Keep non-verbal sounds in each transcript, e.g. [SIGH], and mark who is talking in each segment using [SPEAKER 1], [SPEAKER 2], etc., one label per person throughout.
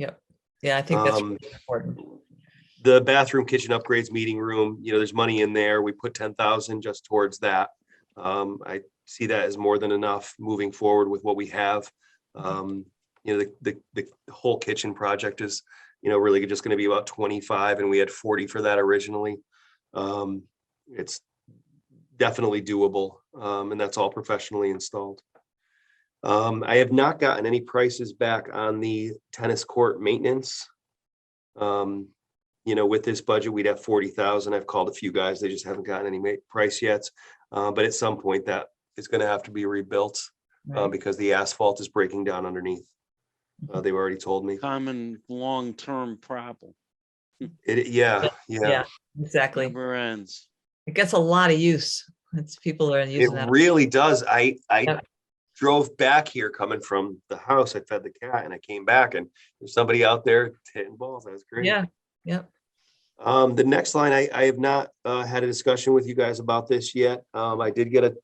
[SPEAKER 1] Yeah, I think that's
[SPEAKER 2] Um,
[SPEAKER 1] really important.
[SPEAKER 2] the bathroom, kitchen upgrades, meeting room, you know, there's money in there. We put ten thousand just towards that. Um, I see that as more than enough moving forward with what we have. Um, you know, the, the, the whole kitchen project is, you know, really just gonna be about twenty-five and we had forty for that originally. Um, it's definitely doable, um, and that's all professionally installed. Um, I have not gotten any prices back on the tennis court maintenance. Um, you know, with this budget, we'd have forty thousand. I've called a few guys. They just haven't gotten any ma- price yet. Uh, but at some point that is gonna have to be rebuilt, uh,
[SPEAKER 1] Right. Mm-hmm.
[SPEAKER 2] because the asphalt is breaking down underneath. Uh, they've already told me.
[SPEAKER 3] common long-term problem,
[SPEAKER 2] It, yeah, yeah.
[SPEAKER 1] Yeah, exactly.
[SPEAKER 3] never ends.
[SPEAKER 1] It gets a lot of use. It's people are
[SPEAKER 2] It
[SPEAKER 1] using that.
[SPEAKER 2] really does. I, I
[SPEAKER 1] Yep.
[SPEAKER 2] drove back here coming from the house. I fed the cat and I came back and there's somebody out there hitting balls. That was great.
[SPEAKER 1] Yeah,
[SPEAKER 2] Um, the next line, I, I have not, uh, had a discussion with you guys about this yet. Um, I did get a,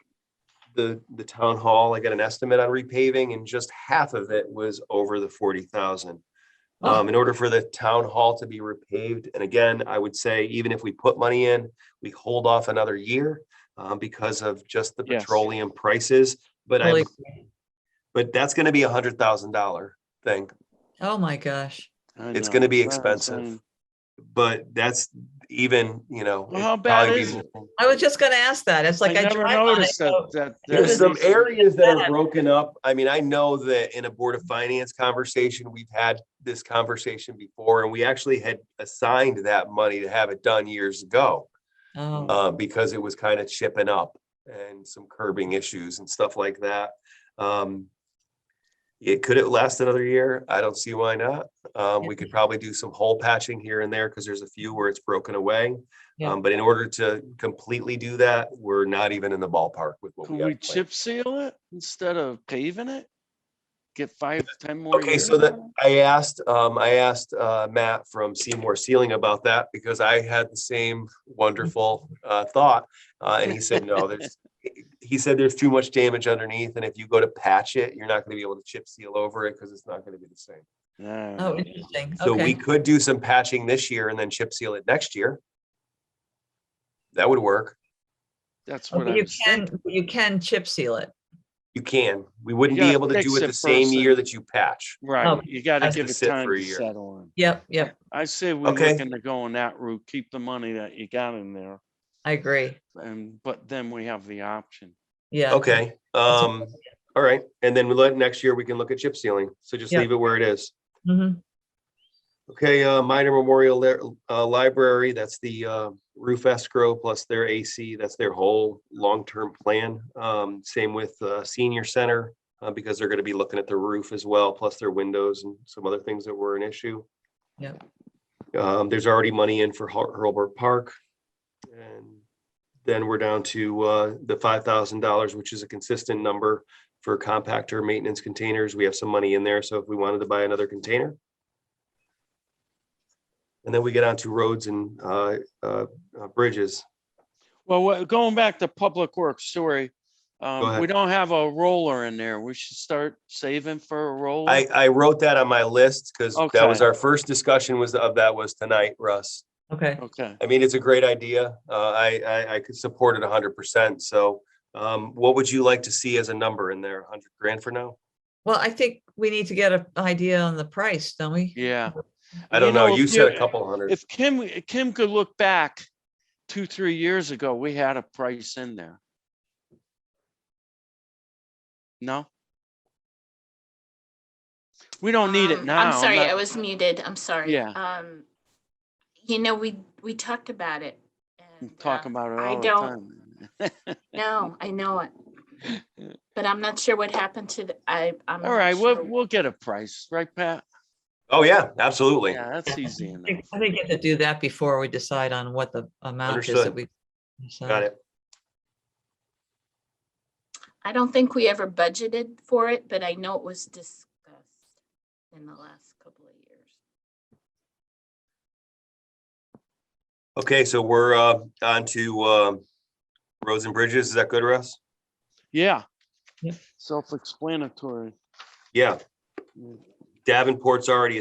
[SPEAKER 2] the, the town hall, I got an estimate on repaving and just half of it was over the forty thousand.
[SPEAKER 1] Oh.
[SPEAKER 2] Um, in order for the town hall to be repaved, and again, I would say even if we put money in, we hold off another year, um, because of just the
[SPEAKER 3] Yes.
[SPEAKER 2] petroleum prices, but I,
[SPEAKER 1] really.
[SPEAKER 2] but that's gonna be a hundred thousand dollar thing.
[SPEAKER 1] Oh, my gosh.
[SPEAKER 3] I
[SPEAKER 2] It's
[SPEAKER 3] know,
[SPEAKER 2] gonna be
[SPEAKER 3] that's what I'm
[SPEAKER 2] expensive.
[SPEAKER 3] saying.
[SPEAKER 2] But that's even, you know.
[SPEAKER 3] Well,
[SPEAKER 2] it'd
[SPEAKER 3] how bad
[SPEAKER 2] probably
[SPEAKER 3] is
[SPEAKER 2] be-
[SPEAKER 1] I was just gonna ask that. It's like
[SPEAKER 3] I
[SPEAKER 1] I Oh,
[SPEAKER 3] never
[SPEAKER 1] drive on it.
[SPEAKER 3] noticed that,
[SPEAKER 1] so-
[SPEAKER 3] that.
[SPEAKER 2] There's
[SPEAKER 3] that
[SPEAKER 2] some
[SPEAKER 3] piece of-
[SPEAKER 2] areas that
[SPEAKER 1] Yeah.
[SPEAKER 2] are broken up. I mean, I know that in a Board of Finance conversation, we've had this conversation before, and we actually had assigned that money to have it done years ago,
[SPEAKER 1] Oh,
[SPEAKER 2] uh, because it was kind of chipping up and some curbing issues and stuff like that. Um, It, could it last another year? I don't see why not. Um, we could probably do some hole patching here and there, because there's a few where it's broken away.
[SPEAKER 1] Yeah.
[SPEAKER 2] Um, but in order to completely do that, we're not even in the ballpark with what we
[SPEAKER 3] Could we
[SPEAKER 2] have planned.
[SPEAKER 3] chip seal it instead of paving it? Get five, ten more
[SPEAKER 2] Okay,
[SPEAKER 3] years?
[SPEAKER 2] so that, I asked, um, I asked, uh, Matt from Seymour Sealing about that because I had the same wonderful, uh, thought. Uh, and he
[SPEAKER 1] [LAUGHS]
[SPEAKER 2] said, no, there's, he said there's too much damage underneath and if you go to patch it, you're not gonna be able to chip seal over it because it's not gonna be the same.
[SPEAKER 3] Yeah.
[SPEAKER 1] oh, interesting.
[SPEAKER 2] So we
[SPEAKER 1] Okay.
[SPEAKER 2] could do some patching this year and then chip seal it next year. That would work.
[SPEAKER 3] That's what I
[SPEAKER 1] But You
[SPEAKER 3] was thinking.
[SPEAKER 1] can, you can chip seal it.
[SPEAKER 2] You can. We wouldn't be
[SPEAKER 3] gotta
[SPEAKER 2] able to
[SPEAKER 3] fix
[SPEAKER 2] do it
[SPEAKER 3] it
[SPEAKER 2] the same
[SPEAKER 3] first
[SPEAKER 2] year
[SPEAKER 3] and-
[SPEAKER 2] that you patch.
[SPEAKER 1] Oh,
[SPEAKER 3] Right, you gotta
[SPEAKER 1] has
[SPEAKER 2] to
[SPEAKER 3] give it
[SPEAKER 2] sit
[SPEAKER 3] time
[SPEAKER 2] for a
[SPEAKER 3] to
[SPEAKER 2] year.
[SPEAKER 3] settle on.
[SPEAKER 1] Yep, yep,
[SPEAKER 3] I say we're
[SPEAKER 2] Okay.
[SPEAKER 3] looking to go on that route, keep the money that you got in there,
[SPEAKER 1] I agree.
[SPEAKER 3] and, but then we have the option.
[SPEAKER 1] Yeah.
[SPEAKER 2] Okay,
[SPEAKER 1] That's a-
[SPEAKER 2] um, all right. And then we let, next year we can look at chip sealing. So just
[SPEAKER 1] Yeah.
[SPEAKER 2] leave it where it is.
[SPEAKER 1] Mhm.
[SPEAKER 2] Okay, uh, minor memorial Lar- uh, library, that's the, uh, roof escrow plus their AC, that's their whole long-term plan. Um, same with, uh, senior center, uh, because they're gonna be looking at the roof as well, plus their windows and some other things that were an issue.
[SPEAKER 1] Yep.
[SPEAKER 2] Um, there's already money in for Har- Hurlburt Park. And then we're down to, uh, the five thousand dollars, which is a consistent number for compactor maintenance containers. We have some money in there, so if we wanted to buy another container. And then we get onto roads and uh, uh, uh, bridges.
[SPEAKER 3] Well, what- going back to public works, sorry. Um,
[SPEAKER 2] ahead.
[SPEAKER 3] we don't have a roller in there. We should start saving for a roller.
[SPEAKER 2] I, I wrote that on my list because that was
[SPEAKER 3] Okay.
[SPEAKER 2] our first discussion was of that was tonight, Russ.
[SPEAKER 1] Okay,
[SPEAKER 3] Okay,
[SPEAKER 2] I mean, it's a great idea. Uh, I, I, I could support it hundred percent. So um, what would you like to see as a number in there? Hundred grand for now?
[SPEAKER 1] well, I think we need to get an idea on the price, don't we?
[SPEAKER 3] yeah.
[SPEAKER 2] I
[SPEAKER 3] You
[SPEAKER 2] don't know.
[SPEAKER 3] know,
[SPEAKER 2] You
[SPEAKER 3] if
[SPEAKER 2] said
[SPEAKER 3] you-
[SPEAKER 2] a couple hundred.
[SPEAKER 3] If Kim, Kim could look back two, three years ago, we had a price in there. No? We don't need it
[SPEAKER 4] Um,
[SPEAKER 3] now.
[SPEAKER 4] I'm sorry,
[SPEAKER 3] not-
[SPEAKER 4] I was muted. I'm sorry.
[SPEAKER 3] Yeah.
[SPEAKER 4] Um, you know, we, we talked about it. and,
[SPEAKER 3] Talk
[SPEAKER 4] um,
[SPEAKER 3] about it
[SPEAKER 4] I
[SPEAKER 3] all the
[SPEAKER 4] don't
[SPEAKER 3] time. [LAUGHS]
[SPEAKER 4] know. I know it. But I'm not sure what happened to the, I, I'm.
[SPEAKER 3] All
[SPEAKER 4] not
[SPEAKER 3] right,
[SPEAKER 4] sure.
[SPEAKER 3] we'll, we'll get a price, right, Pat?
[SPEAKER 2] Oh, yeah, absolutely.
[SPEAKER 3] Yeah, that's easy
[SPEAKER 1] I
[SPEAKER 3] enough.
[SPEAKER 1] think I think you have to do that before we decide on what the amount is that
[SPEAKER 2] Understood.
[SPEAKER 1] we.
[SPEAKER 2] Got it.
[SPEAKER 4] I don't think we ever budgeted for it, but I know it was discussed in the last couple of years.
[SPEAKER 2] Okay, so we're uh, on to um, roads and bridges. Is that good, Russ?
[SPEAKER 3] Yeah.
[SPEAKER 1] Yep.
[SPEAKER 3] Self-explanatory.
[SPEAKER 2] Yeah.
[SPEAKER 3] Yeah. Mm.
[SPEAKER 2] Davenport's already